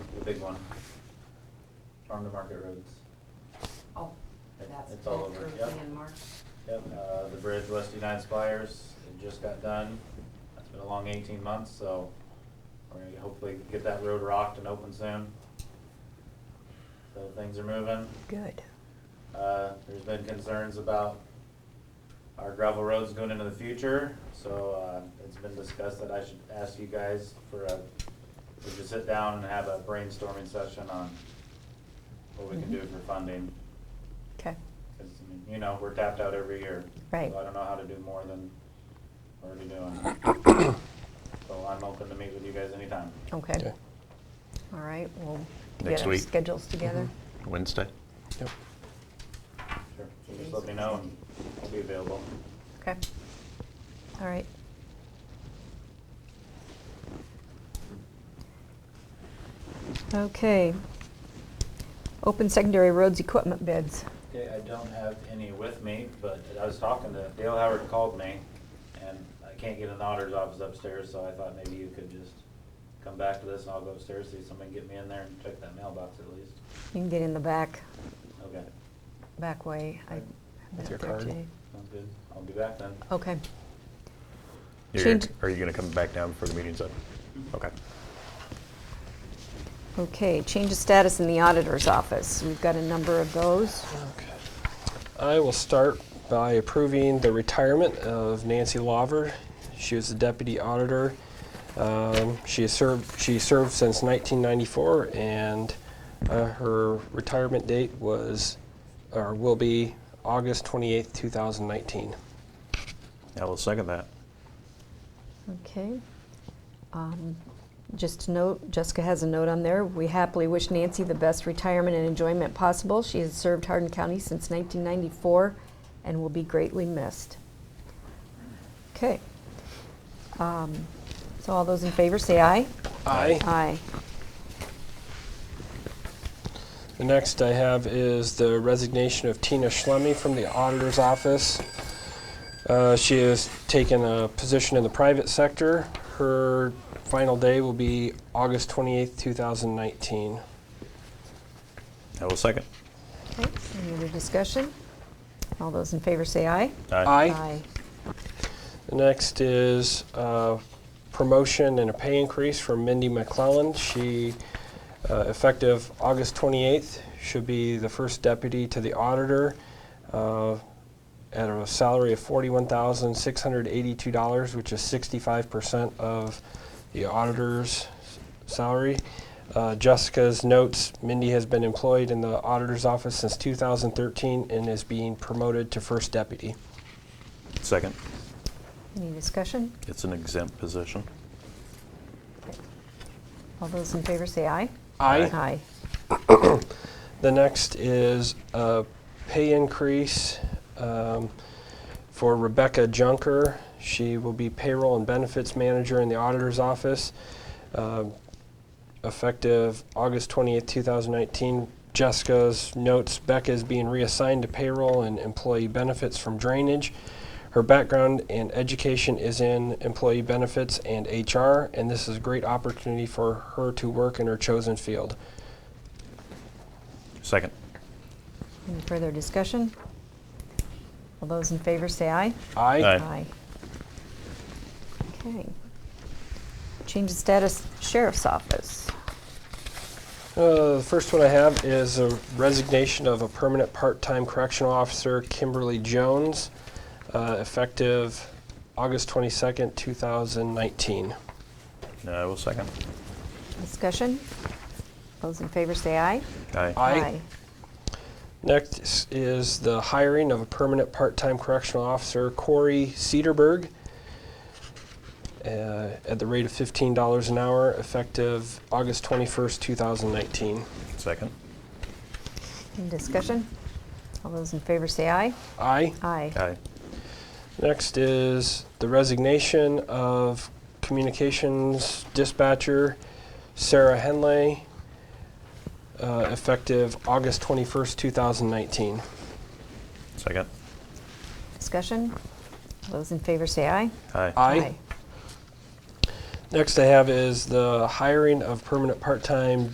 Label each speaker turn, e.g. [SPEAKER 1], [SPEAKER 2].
[SPEAKER 1] big one. Farm to Market Roads.
[SPEAKER 2] Oh, that's
[SPEAKER 1] It's all
[SPEAKER 2] back
[SPEAKER 1] over,
[SPEAKER 2] early
[SPEAKER 1] yep.
[SPEAKER 2] in March.
[SPEAKER 1] Yep, uh, the bridge west of United Spires, it just got done. It's been a long eighteen months, so we're gonna hopefully get that road rocked and open soon. So things are moving.
[SPEAKER 3] Good.
[SPEAKER 1] Uh, there's been concerns about our gravel roads going into the future, so, uh, it's been discussed that I should ask you guys for a, we should sit down and have a brainstorming session on what we can do for funding.
[SPEAKER 3] Okay.
[SPEAKER 1] Cause, I mean, you know, we're tapped out every year.
[SPEAKER 3] Right.
[SPEAKER 1] So I don't know how to do more than we're already doing. So I'm open to meet with you guys anytime.
[SPEAKER 3] Okay. All right. We'll
[SPEAKER 4] Next
[SPEAKER 3] get our
[SPEAKER 4] week. Mm-hmm.
[SPEAKER 3] schedules together.
[SPEAKER 4] Wednesday? Yep.
[SPEAKER 1] Sure. So Just let me know and I'll be available.
[SPEAKER 3] Okay. All right. Okay. Open secondary roads equipment bids.
[SPEAKER 1] Okay, I don't have any with me, but I was talking to, Dale Howard called me and I can't get in the auditor's office upstairs, so I thought maybe you could just come back to this and I'll go upstairs, see if somebody can get me in there and check that mailbox at least.
[SPEAKER 3] You can get in the back,
[SPEAKER 1] Okay,
[SPEAKER 3] back way. I
[SPEAKER 1] Right.
[SPEAKER 3] haven't
[SPEAKER 4] your
[SPEAKER 3] talked to
[SPEAKER 4] card.
[SPEAKER 3] you.
[SPEAKER 1] sounds good. I'll be back then.
[SPEAKER 3] Okay.
[SPEAKER 4] You're,
[SPEAKER 3] Change-
[SPEAKER 4] are you going to come back down before the meeting's up? Okay.
[SPEAKER 3] Okay, change of status in the auditor's office. We've got a number of those.
[SPEAKER 5] Okay. I will start by approving the retirement of Nancy Lawver. She was the deputy auditor. Um, She has served, she served since 1994, and uh, her retirement date was, or will be August 28th, 2019.
[SPEAKER 4] I will second that.
[SPEAKER 3] Okay. Um, Just a note, Jessica has a note on there. We happily wish Nancy the best retirement and enjoyment possible. She has served Hardin County since 1994 and will be greatly missed. Okay. Um, So all those in favor, say aye.
[SPEAKER 5] Aye.
[SPEAKER 3] Aye.
[SPEAKER 5] The next I have is the resignation of Tina Schlemme from the auditor's office. Uh, she has taken a position in the private sector. Her final day will be August 28th, 2019.
[SPEAKER 4] I will second.
[SPEAKER 3] Okay, any other discussion? All those in favor, say aye.
[SPEAKER 5] The next is uh, promotion and a pay increase for Mindy McClellan. She, uh, effective August 28th, should be the first deputy to the auditor uh, at a salary of $41,682, which is 65% of the auditor's salary. Uh, Jessica's notes, Mindy has been employed in the auditor's office since 2013 and is being promoted to first deputy.
[SPEAKER 4] Second.
[SPEAKER 3] Any discussion?
[SPEAKER 4] It's an exempt position.
[SPEAKER 3] All those in favor, say aye. Aye.
[SPEAKER 5] The next is a pay increase um, for Rebecca Junker. She will be payroll and benefits manager in the auditor's office, um, effective August 28th, 2019. Jessica's notes, Becca is being reassigned to payroll and employee benefits from drainage. Her background and education is in employee benefits and HR, and this is a great opportunity for her to work in her chosen field.
[SPEAKER 4] Second.
[SPEAKER 3] Any further discussion? All those in favor say aye.
[SPEAKER 5] Aye.
[SPEAKER 4] Aye.
[SPEAKER 3] Okay. Change of status, sheriff's office.
[SPEAKER 5] Uh, the first one I have is a resignation of a permanent part-time correctional officer, Kimberly Jones, uh, effective August 22nd, 2019.
[SPEAKER 4] I will second.
[SPEAKER 3] Discussion? Those in favor say aye.
[SPEAKER 4] Aye.
[SPEAKER 5] Aye. Next is- is the hiring of a permanent part-time correctional officer, Corey Cedarberg, uh, at the rate of $15 an hour, effective August 21st, 2019.
[SPEAKER 4] Second.
[SPEAKER 3] Any discussion? All those in favor say aye.
[SPEAKER 5] Aye.
[SPEAKER 3] Aye.
[SPEAKER 4] Aye.
[SPEAKER 5] Next is the resignation of communications dispatcher Sarah Henley, uh, effective August 21st, 2019.
[SPEAKER 4] Second.
[SPEAKER 3] Discussion? All those in favor say aye.
[SPEAKER 4] Aye.
[SPEAKER 5] Next I have is the hiring of permanent part-time